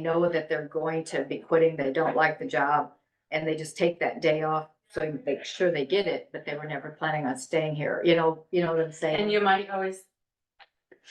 know that they're going to be quitting, they don't like the job, and they just take that day off, so you make sure they get it, but they were never planning on staying here, you know, you know what I'm saying? And you might always,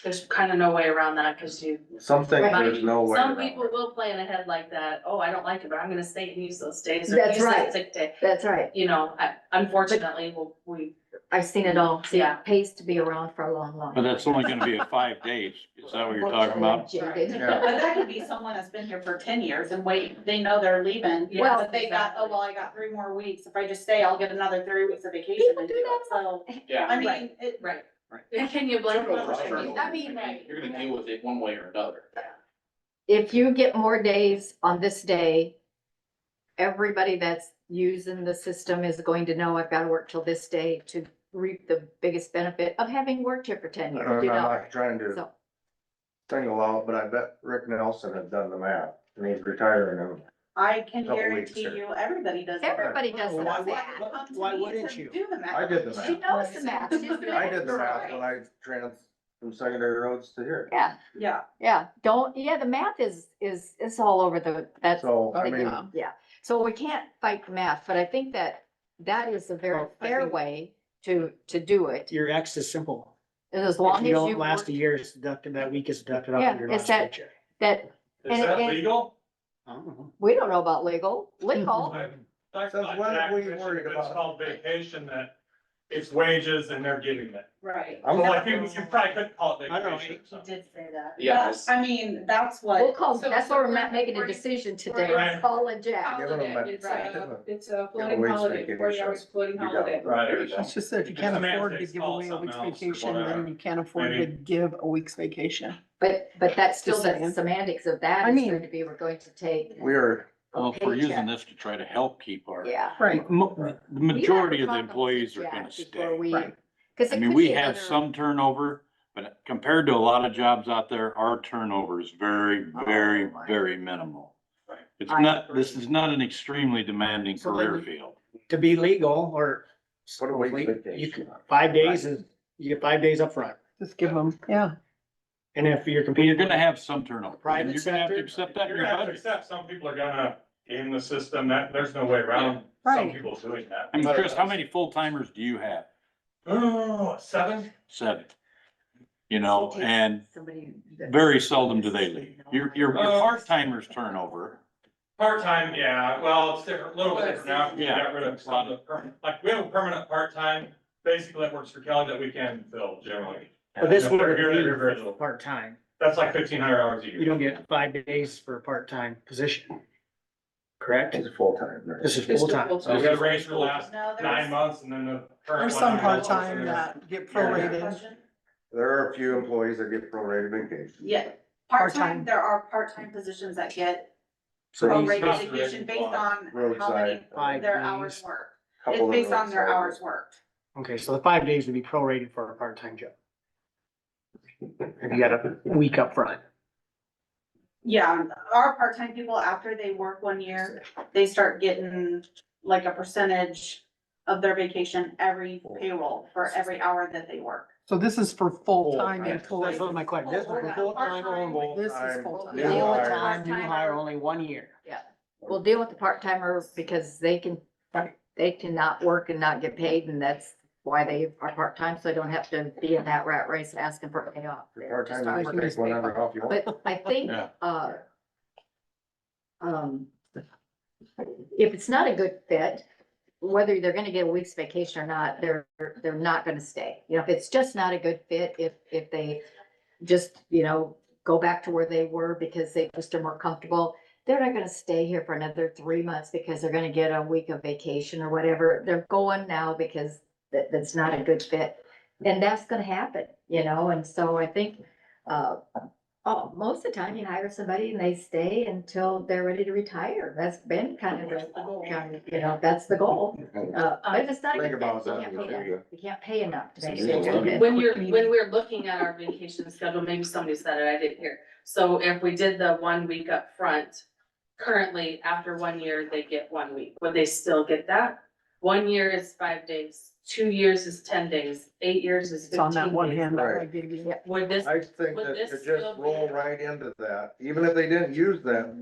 there's kind of no way around that because you. Some things Right. there's no way. Some around. people will plan ahead like that. Oh, I don't like it, but I'm gonna stay and use those days or That's use that right. sick day. That's right, You know, I- unfortunately, we'll- we, I've seen it all, see, Yeah. it pays to be around for a long, long. But that's only gonna be a five days, is that what you're talking about? Unfortunately, Yeah. But that could be someone that's been here for ten years and wait, they know they're leaving, Yeah, but they got, oh, well, I got three more weeks, if I just stay, I'll get another three weeks of vacation. People and do do it. that So, Yeah. I mean, Right. it, right. Right. And can you blame them? Right. I mean, right. You're gonna deal with it one way or another. If you get more days on this day, everybody that's using the system is going to know I've gotta work till this day to reap the biggest benefit of having worked here for ten And years, I'm you know? not trying to So, single out, but I bet Rick Nelson has done the math and he's retiring I can Couple weeks guarantee here. you, everybody does. that. everybody does Well, that. why would- come to Why me wouldn't to you? Do the math. I did the math. She knows the math, she's been and I at it did the for a math while. when I trans from secondary roads to here. Yeah, Yeah, yeah, don't, yeah, the math is, is, it's all over the, that's, So, I like, mean, yeah. So we can't fight the math, but I think that that is a very Well, I fair think- way to, to do it. Your X is simple. As long If as you you. don't last work- a year, it's deducted, that week is deducted off Yeah, of your it's last that- paycheck. That, Is And- that and- legal? I don't know. we don't know about legal, legal, I- That's Says not what are we taxation, worried but about? It's called vacation that it's wages and they're giving it. right. I'm Well, I like, think you probably could call it I don't know. vacation. He did say that. Yeah. But, I mean, that's we'll what, call, So- that's so why we're we're- not making a we're- decision today, we're- It's Paul and Jack. Give them a- It's a, it's a floating Give a week's holiday, forty vacation. hours floating You got holiday. it. Right. It's just that if you can't afford to give away a week's vacation, then you can't afford to give a week's vacation. But, but that's still Just the saying. semantics of that I is mean- going to be, we're going to take. we are, a Well, if we're using paycheck. this to try to help keep our, Yeah. Right. Mo- the majority of the employees are gonna stay. I mean, we have some turnover, but compared to a lot of jobs out there, our turnover is very, Oh, very, very minimal. Right. It's I not, this is not an extremely demanding So then career you- field. To be legal or what a week's you vacation. could, five days is, you get five days up front. Just give them, yeah. And if you're But you're competing, gonna have some turnover. Private You're gonna have to sector. accept that in You're your gonna have to budget. accept some people are gonna game the system, that, there's no way around some Right. people doing that. I mean, Chris, how many full timers do you have? Oh, seven? Seven. You know, and very seldom do they leave. Your, your, your Uh, part timers turn over. Part-time, yeah, well, it's different, a little bit different now, we Yeah. got rid of some of the, perm- like, we have a permanent part-time, basically that works for Kelly that we can fill generally. but this would You're gonna hear very be little. part-time. That's like fifteen hundred hours a year. You don't get five days for a part-time position. Correct? It's full time. This is It's just full-time. full-time. So we got a range for the last no, nine there's. months and then the current. There's one, some nine months, part-time and then- that get Yeah. prorated. There are a few employees that get prorated vacation. Yeah, part-time, Part-time. there are part-time positions that get So he's not prorated vacation based on how many roadside, Five their days. hours worked. couple It's of based on their roadside. hours worked. Okay, so the five days would be prorated for a part-time job. If you got a week up front. Yeah, Um, our part-time people, after they work one year, they start getting like a percentage of their vacation every payroll for every hour that they work. So this is for Full-time. full-time That's employees. not my question. This is for full-time or Part-time. full- This is Full-time. full-time. New hire. full-time, new hire only one year. We'll deal with the part timers because they can, they cannot work and not get paid and that's why they are part time, so they don't have to be in that rat race asking for a payoff. Your They're just part-timers not take working. whatever off you want. But I think, Yeah. uh, um, if it's not a good fit, whether they're gonna get a week's vacation or not, they're, they're not gonna stay. You know, if it's just not a good fit, if, if they just, you know, go back to where they were because they just are more comfortable, they're not gonna stay here for another three months because they're gonna get a week of vacation or whatever. They're going now because that, that's not a good fit. And that's gonna happen, you know, and so I think, uh, Oh, most of the time you hire somebody and they stay until they're ready to retire. That's been kind of the, goal, you know, that's the goal. Uh, but if it's not. a Think good fit, about you that can't before pay you- enough. You can't pay enough to make it a good fit. When you're, when we're looking at our vacation schedule, maybe somebody said it, I didn't hear. So if we did the one week up front, currently, after one year, they get one week. Would they still get that? One year is five days, two years is ten days, eight years is It's on that fifteen one days. hand that I Right. gave you. Would this I think Would that this to just still be- roll right into that, even if they didn't use that